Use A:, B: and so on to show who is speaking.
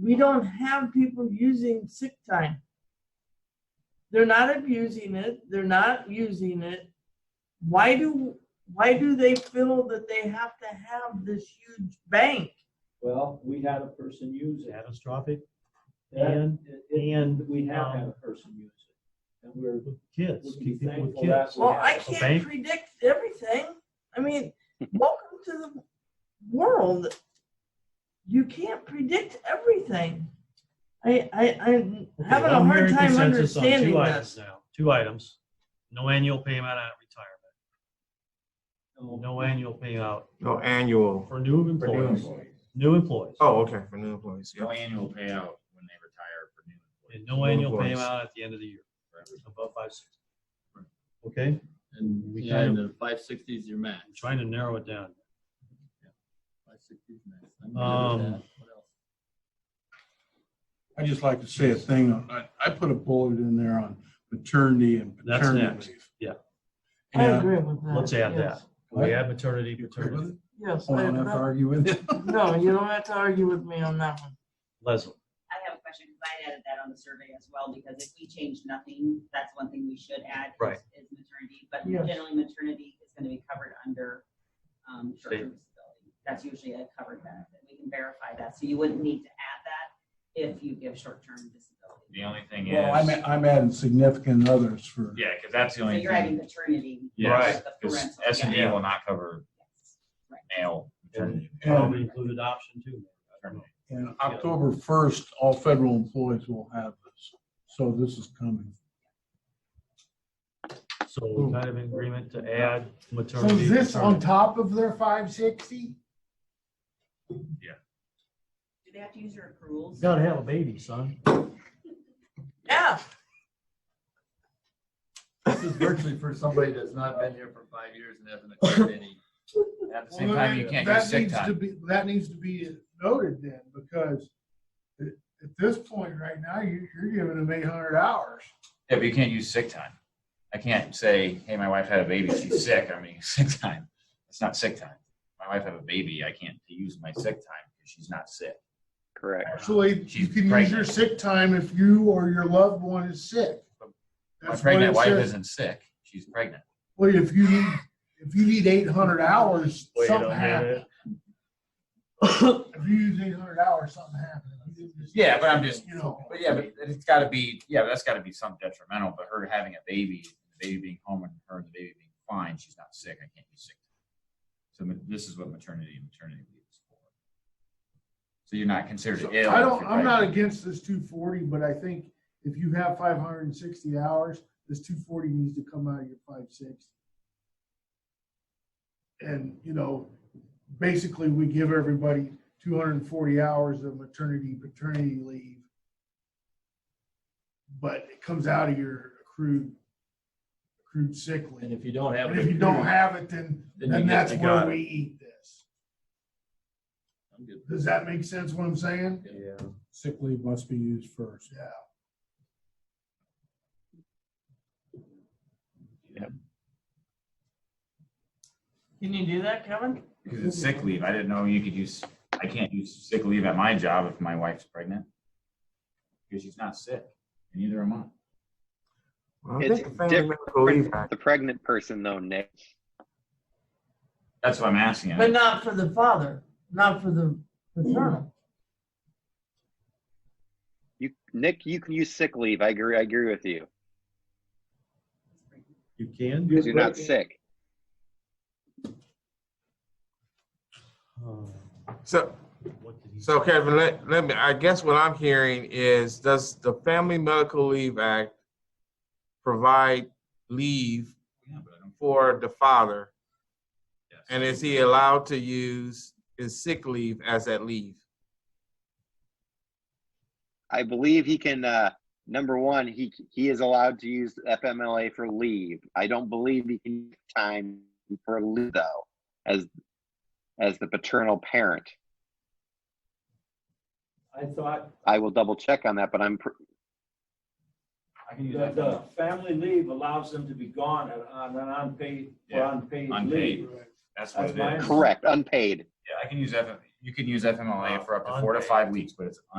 A: we don't have people using sick time. They're not abusing it. They're not using it. Why do why do they feel that they have to have this huge bank?
B: Well, we had a person use it.
C: catastrophic
B: That-
C: and
B: it- it-
C: and
B: We have had
C: um,
B: a person use it. And we're,
C: with
B: we
C: kids,
B: can be
C: keep people
B: thankful
C: with kids.
B: that. we
A: Well,
B: have
A: I
B: it.
A: can't
C: bank?
A: predict everything. I mean, welcome to the world. You can't predict everything. I I I'm
C: Okay,
A: having a
C: I'm
A: hard
C: hearing
A: time
C: consensus on two
A: understanding
C: items
A: this.
C: now. Two items, no annual payout at retirement,
B: um,
C: no annual payout
D: No, Oh, annual.
C: for new
D: for new
C: employees,
D: employees.
C: new employees.
D: Oh, okay, for new employees, yeah.
E: No annual payout when they retire for new employees.
C: And no
D: New
C: annual
D: employees.
C: payout at the end of the year, above five sixty.
E: Right.
C: Okay,
F: And
C: We
F: yeah,
C: kind
F: and the five sixty is your max.
C: I'm trying to narrow it down.
F: Five sixty is max. I'm good with
C: Um,
F: that. What else?
G: I just like to say a thing. on- I, I put a bullet in there on maternity and
C: That's next.
G: paternity leave.
C: Yeah.
A: I
G: And,
A: agree with that.
C: Let's add
A: yes.
C: We add maternity,
G: You agree with
C: paternity.
G: it?
A: Yes,
G: I
A: I-
G: don't have to argue with it.
A: no, you don't have to argue with me on that one.
C: Leslie,
H: I have a question, because I added that on the survey as well, because if we change nothing, that's one thing we should add. is-
C: Right.
H: Is maternity, but
A: Yes.
H: generally maternity is gonna be covered under, um, short-term disability. That's usually a covered benefit. We can verify that, so you wouldn't need to add that if you give short-term disability.
E: The only thing is,
G: Well, I'm, I'm adding significant others for,
E: yeah, because that's the
H: So
E: only
H: you're adding
E: thing.
H: maternity.
E: Yes,
H: the
E: because
H: parental,
E: S and D
H: yeah.
E: will not cover
H: Yes, Right.
E: male maternity.
C: probably included option two.
E: paternity.
G: and October first, all federal employees will have this. So this is coming.
C: So we're kind of in agreement to add
I: So
C: maternity.
I: is this on
C: paternity.
I: top of their five sixty?
H: Do they have to use your accruals?
C: You Gotta have a baby, son.
A: Yeah,
F: This is virtually for somebody that's not been here for five years and hasn't accrued any.
E: At the same time, you can't use sick time.
I: That needs to be noted then, because at, at this point right now, you, you're giving them eight hundred hours.
E: Yeah, but you can't use sick time. I can't say, hey, my wife had a baby, she's sick, I'm using sick time. It's not sick time. My wife had a baby, I can't use my sick time because she's not sick.
J: Correct.
I: Actually, you
E: She's
I: can use your
E: pregnant.
I: sick time if you or your loved one is sick.
E: My
I: That's what
E: pregnant
I: it
E: wife
I: says.
E: isn't sick, she's pregnant.
I: Well, if you need, if you need eight hundred hours, something happened. If you use eight hundred hours, something happened.
E: Yeah, but I'm just-
I: You know.
E: But yeah, but it's got to be yeah, but that's got to be some detrimental. But her having a baby, the baby being home, and her and the baby being fine, she's not sick. I can't be sick. So ma- this is what maternity and maternity leave is for. So you're not considered
I: So,
E: ill.
I: I
E: if
I: don't,
E: you're
I: I'm not
E: pregnant.
I: against this two forty, but I think if you have five hundred and sixty hours, this two forty needs to come out of your five sixty. And, you know, basically, we give everybody two hundred and forty hours of maternity, paternity leave. But it comes out of your accrued, accrued sick
F: And
I: leave.
F: if you don't have.
I: And
F: it
I: if you don't
F: accrued,
I: have it, then,
F: then you
I: then
F: get-
I: that's
F: you
I: where
F: got
I: we
F: it.
I: eat this.
F: I'm good with
I: Does that make sense what I'm saying?
C: Yeah.
G: Sick leave must be used first.
I: Yeah.
A: can you do that, Kevin?
E: because it's sick leave. I didn't know you could use. I can't use sick leave at my job if my wife's pregnant because she's not sick, and neither am I.
D: Well, I
J: It's
D: think the Family Medical Leave Act,
J: The pregnant person though, Nick.
E: That's what I'm asking.
A: But not for the father, not for the paternal.
J: You, Nick, you can use sick leave. I agree. I agree with you.
C: You can do
J: Because you're not sick.
C: Um,
D: so, so Kevin, let, let me, I guess what I'm hearing is, does the Family Medical Leave Act provide leave
E: Yeah, but I don't-
D: for the father?
E: yes.
D: And is he allowed to use his sick leave as that leave?
J: I believe he can, uh, number one, he, he is allowed to use FMLA for leave. I don't believe he can use time for leave though, as, as the paternal parent.
B: I thought
J: I will double check on that, but I'm, pr-
E: I can use
B: the,
E: that.
B: the family leave allows them to be gone on- on an unpaid, for
E: Yeah,
B: unpaid
E: unpaid.
B: leave.
E: That's
B: That's
E: what it
B: mine.
E: is.
J: correct, unpaid.
E: Yeah, I can use F. You can use FMLA for up to four to
C: Unpaid.
E: five weeks, but it's